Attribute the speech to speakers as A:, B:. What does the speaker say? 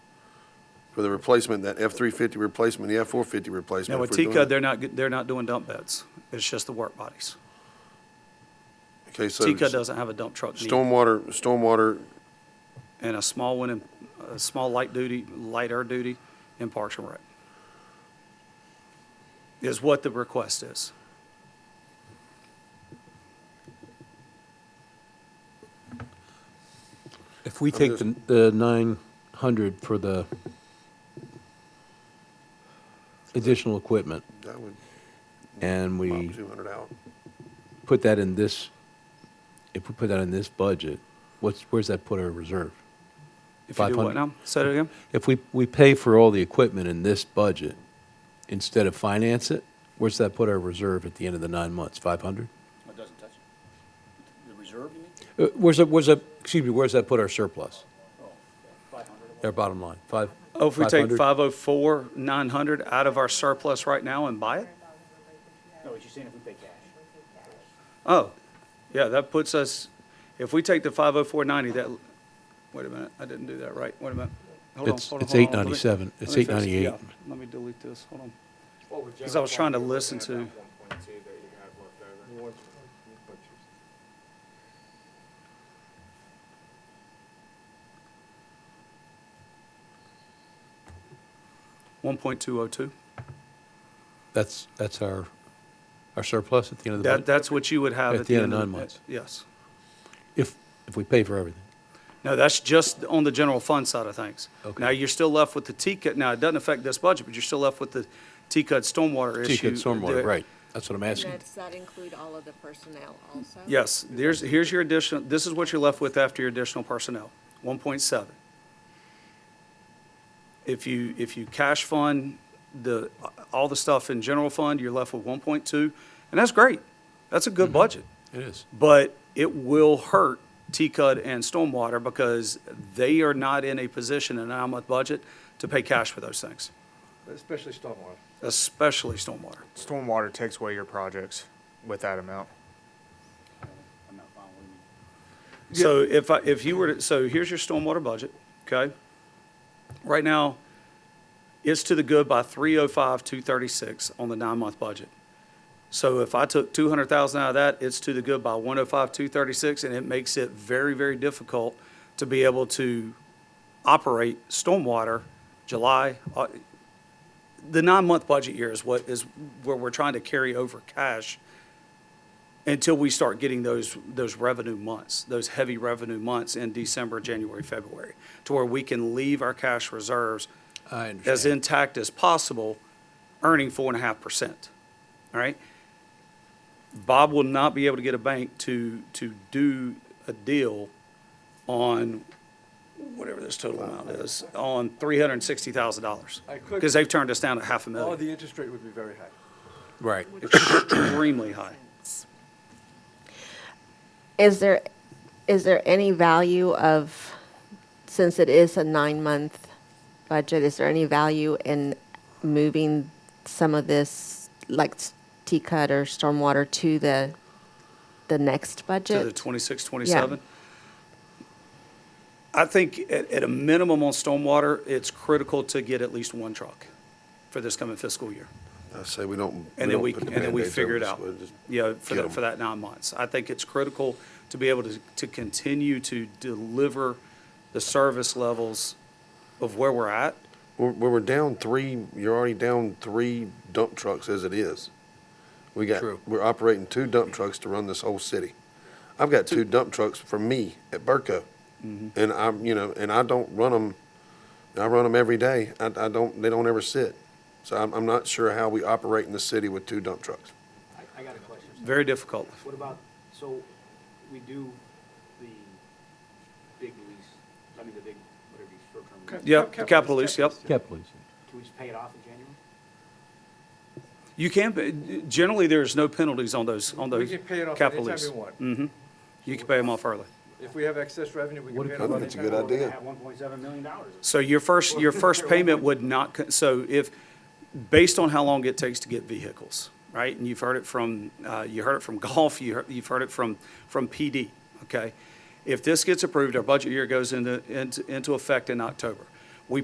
A: for the replacement, that F-350 replacement, the F-450 replacement.
B: Now,
A: if
B: with
A: we're doing
B: Tika,
A: it.
B: they're not, g- they're not doing dump beds. It's just the work bodies.
A: Okay, so
B: Tika doesn't have a dump truck need.
A: Stormwater, stormwater,
B: And a small one, in a small light duty, lighter duty in Parks and Rec. Is what the request is.
C: If we take the, the nine hundred for the additional equipment
A: that would
C: and
A: pop
C: we
A: 200 out.
C: put that in this, if we put that in this budget, what's, where's that put our reserve?
B: If you do what
C: 500.
B: now? Say it again?
C: If we, we pay for all the equipment in this budget instead of finance it, where's that put our reserve at the end of the nine months? Five hundred?
D: It doesn't touch it. The reserve, you mean?
C: Uh, Where's that, where's that, excuse me, where's that put our surplus?
D: Five hundred.
C: Our bottom line, five?
B: Oh, if we take
C: 500?
B: five oh four, nine hundred out of our surplus right now and buy it?
D: No, he's just saying if we pay cash.
B: Oh, yeah, that puts us, if we take the five oh four ninety, that, wait a minute, I didn't do that right, wait a minute. Hold on,
C: It's-
B: hold on,
C: it's
B: hold on, let me-
C: 897.
B: let
C: It's
B: me fix-
C: 898.
B: yeah, Let me delete this, hold on. Because I was trying to listen to, one point two oh two,
C: That's, that's our, our surplus at the end of the
B: that,
C: budget?
B: that's what you would have at the end of.
C: nine months.
B: Yes.
C: If, if we pay for everything.
B: No, that's just on the general fund side of things.
C: Okay.
B: Now, you're still left with the T-cut, now, it doesn't affect this budget, but you're still left with the T-cut stormwater issue.
C: T-cut stormwater,
B: that-
C: right. That's what I'm asking.
E: And does that include all of the personnel also?
B: Yes, there's, here's your additional, this is what you're left with after your additional personnel, one point seven. If you, if you cash fund the, all the stuff in general fund, you're left with one point two, and that's great. That's a
C: Mm-hmm.
B: good budget,
C: It is.
B: but it will hurt T-Cud and Stormwater because they are not in a position in a nine-month budget to pay cash for those things,
F: Especially stormwater.
B: especially Stormwater.
G: Stormwater takes away your projects with that amount.
D: I'm not following you.
B: So if I, if you were to, so here's your stormwater budget, okay? Right now, it's to the good by three oh five, two thirty-six on the nine-month budget. So if I took two hundred thousand out of that, it's to the good by one oh five, two thirty-six, and it makes it very, very difficult to be able to operate stormwater July, uh, the nine-month budget year is what, is where we're trying to carry over cash until we start getting those, those revenue months, those heavy revenue months in December, January, February, to where we can leave our cash reserves
C: I
B: as
C: understand.
B: intact as possible, earning four and a half percent, all right? Bob will not be able to get a bank to, to do a deal on whatever this total amount is, on three hundred and sixty thousand dollars.
F: I could-
B: Because they've turned us down at half a
F: Oh,
B: million,
F: the interest rate would be very high.
C: Right.
B: extremely high.
E: Is there, is there any value of, since it is a nine-month budget, is there any value in moving some of this, like s- T-Cut or stormwater to the, the next
B: To the
E: budget?
B: 26, 27? I think at, at a minimum on stormwater, it's critical to get at least one truck for this coming fiscal year.
A: I say we don't.
B: And then
A: don't
B: we,
A: put the
B: and then we
A: Band-Aids
B: figure
A: over
B: it
A: this.
B: out,
A: We'll just
B: you know, for
A: get
B: that,
A: 'em.
B: for that nine months. I think it's critical to be able to, to continue to deliver the service levels of where we're at.
A: We're, we're down three, you're already down three dump trucks as it is. We got,
C: True.
A: we're operating two dump trucks to run this whole city. I've got two dump trucks for me at Burco. And I'm, you know, and I don't run them, I run them every day. I, I don't, they don't ever sit. So I'm, I'm not sure how we operate in the city with two dump trucks.
D: I, I got a question.
B: Very difficult.
D: What about, so we do the big lease, I mean, the big, whatever you short-term. lease.
B: Yep, the capital lease, yep.
C: Cap, please.
D: Can we just pay it off in January?
B: You can, not generally, there's no penalties on those, on
F: We
B: those
F: can pay it off
B: capital
F: anytime we
B: lease.
F: want.
B: hmm You can pay them off early.
F: If we have excess revenue, we can pay it
A: I
F: off
A: think
F: anytime.
A: it's a good
F: we want.
A: idea.
D: We're gonna have one point seven million dollars.
B: So your first, your first payment would not, co- so if, based on how long it takes to get vehicles, right? And you've heard it from, uh, you heard it from golf, you heard, you've heard it from, from PD, okay? If this gets approved, our budget year goes into, into, into effect in October.